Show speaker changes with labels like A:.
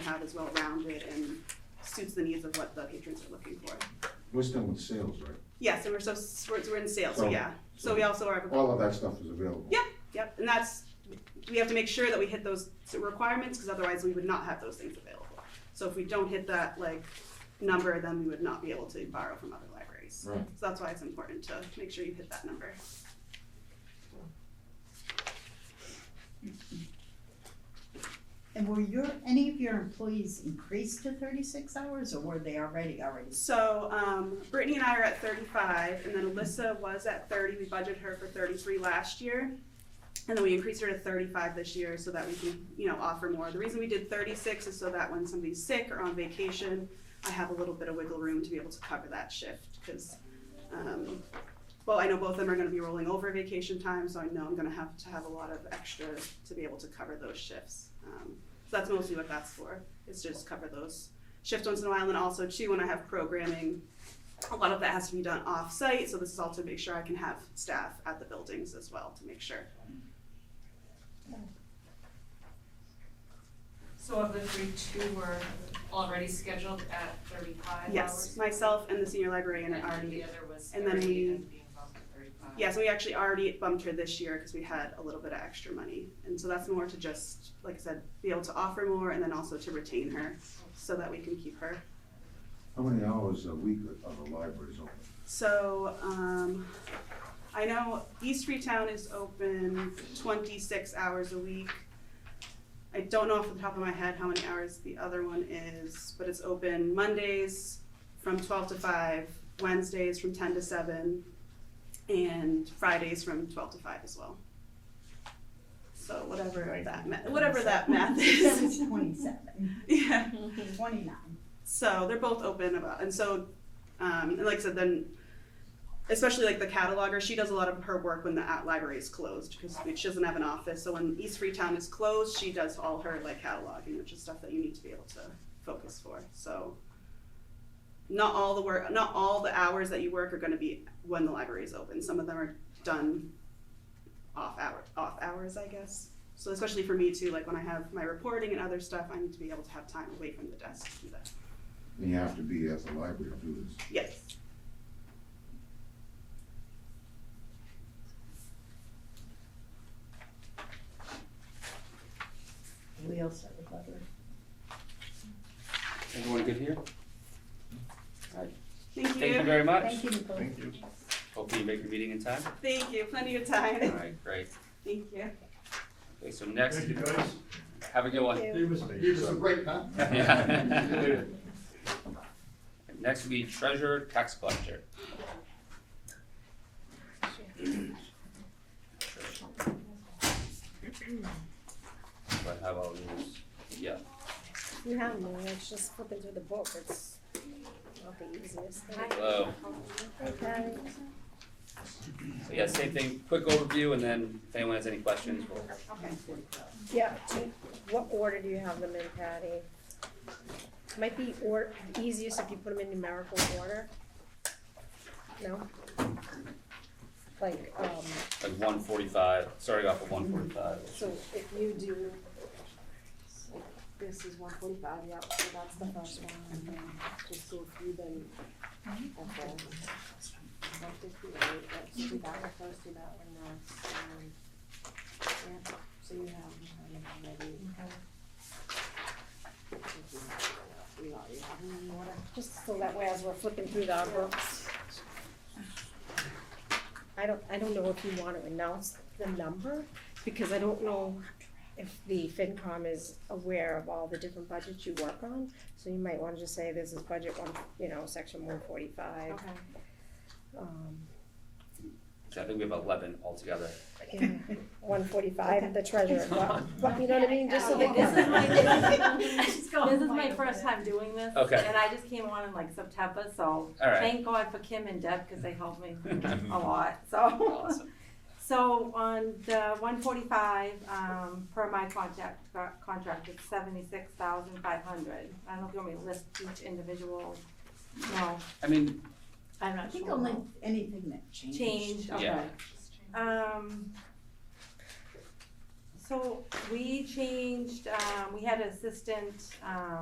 A: have is well-rounded and suits the needs of what the patrons are looking for.
B: We're still in sales, right?
A: Yes, and we're so, s- we're, we're in sales, so
B: So-
A: yeah, so we also are.
B: All of that stuff is available.
A: Yep, yep, and that's, we have to make sure that we hit those requirements, because otherwise we would not have those things available. So if we don't hit that, like, number, then we would not be able to borrow from other libraries.
B: Right.
A: So that's why it's important to make sure you hit that number.
C: And were your, any of your employees increased to thirty-six hours or were they already, already?
A: So, um, Brittany and I are at thirty-five, and then Alyssa was at thirty, we budgeted her for thirty-three last year. And then we increased her to thirty-five this year so that we can, you know, offer more. The reason we did thirty-six is so that when somebody's sick or on vacation, I have a little bit of wiggle room to be able to cover that shift, cause, um, well, I know both of them are gonna be rolling over vacation time, so I know I'm gonna have to have a lot of extra to be able to cover those shifts. Um, so that's mostly what that's for, is just cover those shift once in a while, and then also too, when I have programming, a lot of that has to be done off-site, so this is all to make sure I can have staff at the buildings as well to make sure.
D: So of the three, two were already scheduled at thirty-five hours?
A: Yes, myself and the senior librarian
D: And
A: are
D: then the
A: already,
D: other was
A: and then we-
D: thirty and being bumped to thirty-five?
A: yes, we actually already bumped her this year because we had a little bit of extra money. And so that's more to just, like I said, be able to offer more and then also to retain her so that we can keep her.
B: How many hours a week are the libraries open?
A: So, um, I know East Freetown is open twenty-six hours a week. I don't know off the top of my head how many hours the other one is, but it's open Mondays from twelve to five, Wednesdays from ten to seven, and Fridays from twelve to five as well. So whatever that ma- whatever that math is,
C: Twenty-seven,
A: yeah.
C: twenty-nine.
A: So they're both open about, and so, um, and like I said, then, especially like the cataloger, she does a lot of her work when the at library is closed because she doesn't have an office. So when East Freetown is closed, she does all her like cataloging, which is stuff that you need to be able to focus for. So not all the work, not all the hours that you work are going to be when the library is open. Some of them are done off hour, off hours, I guess. So especially for me too, like when I have my reporting and other stuff, I need to be able to have time away from the desk to do that.
B: And you have to be at the library to do this.
A: Yes.
C: We also recovered.
E: Everyone good here?
A: Thank you.
E: Thank you very much.
C: Thank you, Nicole.
B: you.
E: Hopefully you make your meeting in time.
A: Thank you. Plenty of time.
E: All right, great.
A: Thank you.
E: Okay, so next,
F: Thank you, guys.
E: have a good one.
C: Thank you.
F: Gave us, gave us a break, huh?
E: Yeah. Next will be treasurer, tax collector. Do I have all these? Yeah,
G: You have no, it's just flipping through the book, it's not the easiest thing.
E: hello.
G: Okay.
E: So yeah, same thing, quick overview and then if anyone has any questions, we'll
A: Okay.
G: Yeah, do- what order do you have them in, Patty? Might be or, easiest if you put them in numerical order. No? Like, um,
E: like one forty-five, starting off with one forty-five.
G: so if you do, this is one forty-five, yeah, so that's the first one, and then just go through them at the one fifty-eight, that's do that one first, do that one next, and then, yeah, so you have, um, maybe. You know, you have them in order, just so that way as we're flipping through the books. I don't, I don't know if you wanna announce the number, because I don't know if the FinCom is aware of all the different budgets you work on. So you might wanna just say this is budget one, you know, section one forty-five.
D: Okay.
G: Um,
E: So I think we have eleven altogether.
G: yeah, one forty-five, the treasurer, but, but you know what I mean,
A: Oh.
G: just so that.
H: This is my, this is my
C: over
H: first time doing this.
E: Okay.
H: And I just came on in like September, so
E: All right.
H: thank God for Kim and Deb, cause they helped me a lot, so.
E: Awesome.
H: So on the one forty-five, um, per my contract, contract, it's seventy-six thousand five hundred. I don't know if you want me to list each individual, no,
E: I mean,
H: I'm not
C: I
H: sure.
C: think only anything that changed.
H: Change, okay.
E: Yeah.
H: Um, so we changed, um, we had assistant, um,